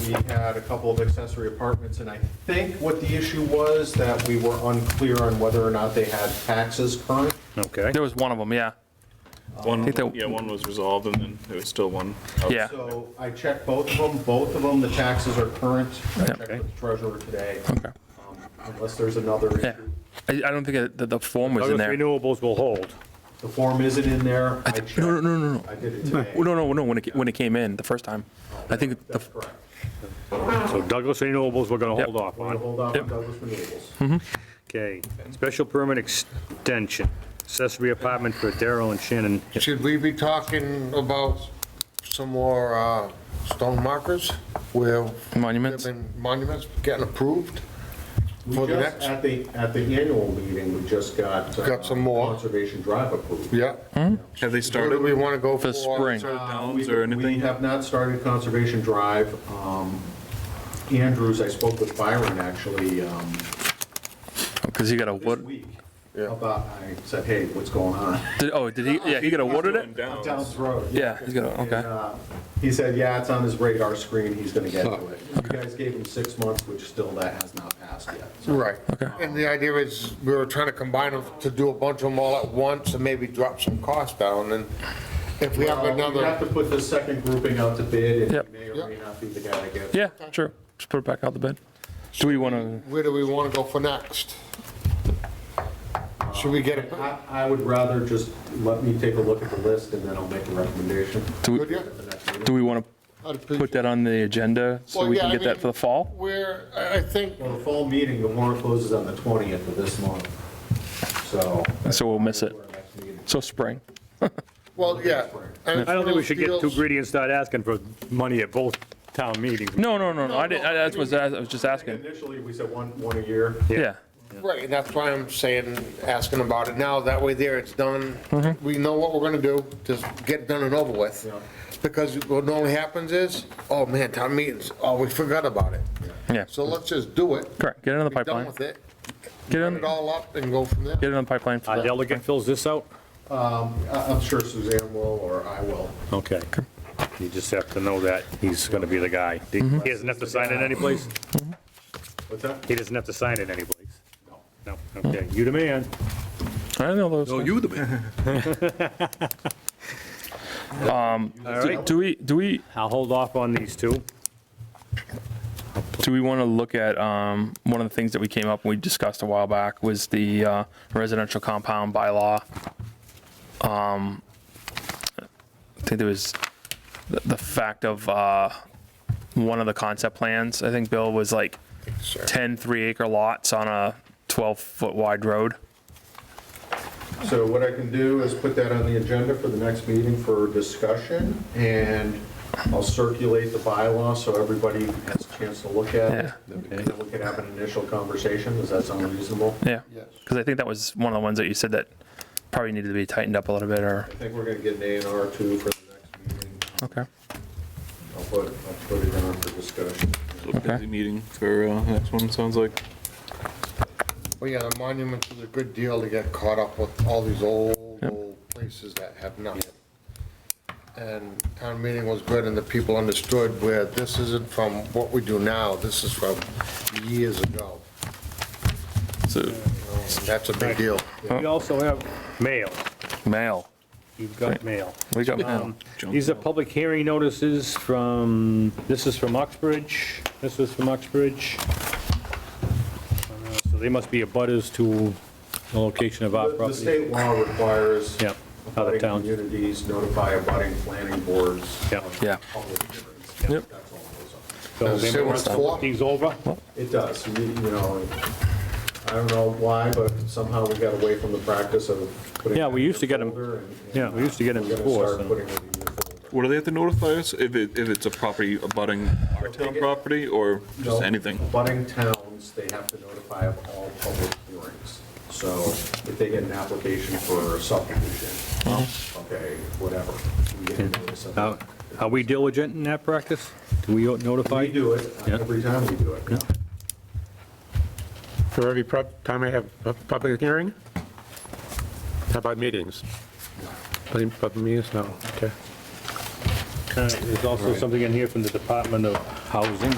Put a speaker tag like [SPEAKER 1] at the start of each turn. [SPEAKER 1] we had a couple of accessory apartments, and I think what the issue was, that we were unclear on whether or not they had taxes current.
[SPEAKER 2] Okay.
[SPEAKER 3] There was one of them, yeah.
[SPEAKER 4] One,
[SPEAKER 3] think that-
[SPEAKER 4] yeah, one was resolved and then there was still one.
[SPEAKER 2] Oh,
[SPEAKER 3] Yeah.
[SPEAKER 1] So I checked both of them, both of them, the taxes are current. I checked
[SPEAKER 2] Okay.
[SPEAKER 1] with the treasurer today,
[SPEAKER 3] Okay.
[SPEAKER 1] um, unless there's another
[SPEAKER 3] Yeah.
[SPEAKER 1] issue.
[SPEAKER 3] I, I don't think it- the, the form was in
[SPEAKER 2] Douglas
[SPEAKER 3] there.
[SPEAKER 2] Renewables will hold.
[SPEAKER 1] The form isn't in there. I checked.
[SPEAKER 3] No, no, no, no, no.
[SPEAKER 1] I did it today.
[SPEAKER 3] Oh, No, no, no, when it, ca- when it came in the first time. I think, the
[SPEAKER 1] That's correct.
[SPEAKER 2] So Douglas Renewables, we're going to
[SPEAKER 3] Yep.
[SPEAKER 2] hold off
[SPEAKER 1] We're going to
[SPEAKER 2] on.
[SPEAKER 1] hold off on
[SPEAKER 3] Yep. Mm-hmm.
[SPEAKER 1] Douglas Renewables.
[SPEAKER 2] Okay. Special permit extension, accessory apartment for Daryl and Shannon.
[SPEAKER 5] Should we be talking about some more uh, stone markers where there have
[SPEAKER 3] monuments,
[SPEAKER 5] been monuments getting approved?
[SPEAKER 1] We
[SPEAKER 5] For the
[SPEAKER 1] just-
[SPEAKER 5] next-
[SPEAKER 1] At the, at the annual meeting, we just got. uh,
[SPEAKER 5] Got some more.
[SPEAKER 1] Conservation Drive approved.
[SPEAKER 5] Yeah.
[SPEAKER 4] Have they
[SPEAKER 5] Where do
[SPEAKER 4] started?
[SPEAKER 5] we want to go for?
[SPEAKER 3] Hmm? For spring.
[SPEAKER 5] So
[SPEAKER 1] Uh,
[SPEAKER 4] Downs
[SPEAKER 1] we-
[SPEAKER 4] or
[SPEAKER 1] We
[SPEAKER 4] anything?
[SPEAKER 1] have not started Conservation Drive. Um, Andrews, I spoke with Byron actually um,
[SPEAKER 3] because he got
[SPEAKER 1] this
[SPEAKER 3] awarded,
[SPEAKER 1] week about, I said, hey, what's going on?
[SPEAKER 3] did- oh, did he, yeah, he got awarded it?
[SPEAKER 4] Oh,
[SPEAKER 1] Downs Road.
[SPEAKER 3] Yeah, he's got,
[SPEAKER 1] And,
[SPEAKER 3] okay.
[SPEAKER 1] uh, He said, yeah, it's on his radar screen, he's going to get to it. You guys gave him six months, which still that has not passed yet. So
[SPEAKER 5] Right. And the idea is, we were trying to combine them to do a bunch of them all at once and maybe drop some costs down, and if we have
[SPEAKER 1] Well, um, We have
[SPEAKER 5] another,
[SPEAKER 1] to put the second grouping out to bid, and
[SPEAKER 3] Yep.
[SPEAKER 1] he may or may not be the guy that gets.
[SPEAKER 3] Yeah, sure. Just put it back out the bid. Do we want to,
[SPEAKER 5] where do we want to go for next? Should we get a,
[SPEAKER 1] I, I would rather just let me take a look at the list, and then I'll make a recommendation.
[SPEAKER 3] do
[SPEAKER 5] Good,
[SPEAKER 3] we,
[SPEAKER 5] yeah.
[SPEAKER 1] at the next meeting.
[SPEAKER 3] do we want
[SPEAKER 5] I'd
[SPEAKER 3] to
[SPEAKER 5] appreciate
[SPEAKER 3] put that on the agenda so
[SPEAKER 5] Well,
[SPEAKER 3] we
[SPEAKER 5] yeah,
[SPEAKER 3] can
[SPEAKER 5] I
[SPEAKER 3] get that
[SPEAKER 5] mean-
[SPEAKER 3] for the fall?
[SPEAKER 5] where, I I think,
[SPEAKER 1] Well, the fall meeting, the warrant closes on the 20th of this month, so.
[SPEAKER 3] So we'll miss it.
[SPEAKER 1] Our next meeting.
[SPEAKER 3] So spring.
[SPEAKER 5] well, yeah. and
[SPEAKER 2] I don't think we should get too
[SPEAKER 5] deals-
[SPEAKER 2] greedy and start asking for money at both town meetings.
[SPEAKER 3] No, no, no, no, I didn't, I- that's what I was just asking.
[SPEAKER 1] Initially, we said one, one a year.
[SPEAKER 3] Yeah,
[SPEAKER 5] Right, and that's why I'm saying, asking about it now, that way there, it's done,
[SPEAKER 2] Mm-hmm.
[SPEAKER 5] we know what we're gonna do, just get done and over with.
[SPEAKER 1] Yeah.
[SPEAKER 5] Because what normally happens is, oh man, town meetings, oh, we forgot about it.
[SPEAKER 3] yeah,
[SPEAKER 5] So let's just do it.
[SPEAKER 3] correct. Get it on the
[SPEAKER 5] Be done
[SPEAKER 3] pipeline.
[SPEAKER 5] with it,
[SPEAKER 3] Get it
[SPEAKER 5] put
[SPEAKER 3] on,
[SPEAKER 5] it all up and go from there.
[SPEAKER 3] get it on the pipeline for
[SPEAKER 2] Our
[SPEAKER 3] that.
[SPEAKER 2] delegate fills this out?
[SPEAKER 1] I- Uh, I'm sure Suzanne will, or I will.
[SPEAKER 2] Okay. You just have to know that he's going to be the guy. He
[SPEAKER 3] Mm-hmm.
[SPEAKER 2] he doesn't have to sign it anyplace?
[SPEAKER 1] What's that?
[SPEAKER 2] He doesn't have to sign it anyplace? No, okay, you the man.
[SPEAKER 3] I know those.
[SPEAKER 4] Oh, you the man.
[SPEAKER 3] Um, Do- Do we, do we,
[SPEAKER 2] I'll hold off on these two.
[SPEAKER 3] do we want to look at, um, one of the things that we came up and we discussed a while back was the uh, residential compound bylaw. Um, I think there was the, the fact of, uh, one of the concept plans, I think Bill was like 10 three acre lots on a 12 foot wide road.
[SPEAKER 1] So what I can do is put that on the agenda for the next meeting for discussion, and I'll circulate the bylaw so everybody has a chance to look at it. And then we can have an initial conversation, does that sound reasonable?
[SPEAKER 3] Yeah.
[SPEAKER 5] Yes.
[SPEAKER 3] Because I think that was one of the ones that you said that probably needed to be tightened up a little bit or,
[SPEAKER 1] I think we're gonna get an A and R too for the next meeting.
[SPEAKER 3] okay.
[SPEAKER 1] I'll put, I'll put it on for discussion.
[SPEAKER 4] Busy meeting for uh, next one, sounds like.
[SPEAKER 5] Well, yeah, the monuments is a good deal to get caught up with all these old, old places that have nothing. And town meeting was good, and the people understood where this isn't from what we do now, this is from years ago.
[SPEAKER 3] So
[SPEAKER 5] That's a big deal.
[SPEAKER 2] We also have mail.
[SPEAKER 3] mail,
[SPEAKER 2] You've got mail.
[SPEAKER 3] we got mail.
[SPEAKER 2] These are public hearing notices from, this is from Oxbridge, this is from Oxbridge. Uh, So they must be abutters to the location of our
[SPEAKER 1] The the
[SPEAKER 2] property.
[SPEAKER 1] state law requires.
[SPEAKER 2] Yeah, other
[SPEAKER 1] abutting
[SPEAKER 2] towns.
[SPEAKER 1] Communities notify abutting planning boards.
[SPEAKER 2] Yeah.
[SPEAKER 1] of
[SPEAKER 3] Yeah.
[SPEAKER 1] public hearings. That's
[SPEAKER 3] Yep.
[SPEAKER 1] all it goes on.
[SPEAKER 2] So
[SPEAKER 5] Does it
[SPEAKER 2] they
[SPEAKER 5] say what
[SPEAKER 2] must
[SPEAKER 5] it's for?
[SPEAKER 2] look these over.
[SPEAKER 1] It does, you you know, I don't know why, but somehow we got away from the practice of putting.
[SPEAKER 2] Yeah, we used to get 'em-
[SPEAKER 1] folder and- and,
[SPEAKER 2] yeah, we used to get 'em
[SPEAKER 1] we're gonna
[SPEAKER 2] before,
[SPEAKER 1] start
[SPEAKER 2] so.
[SPEAKER 1] putting it in your
[SPEAKER 4] What do they have to notify us? If it, if it's a property abutting our town property or just
[SPEAKER 1] folder.
[SPEAKER 4] anything?
[SPEAKER 1] Abutting towns, they have to notify of all public hearings. So if they get an application for a subdivision, okay, whatever. we get a notice of
[SPEAKER 2] Now,
[SPEAKER 1] that.
[SPEAKER 2] Are we diligent in that practice? Do we notify?
[SPEAKER 1] We do it, uh,
[SPEAKER 2] Yeah.
[SPEAKER 1] every time we do it, yeah.
[SPEAKER 6] For every prob- time I have a public hearing? How about meetings? Any Public meetings, no, okay.
[SPEAKER 2] Uh, There's also something in here from the Department of housing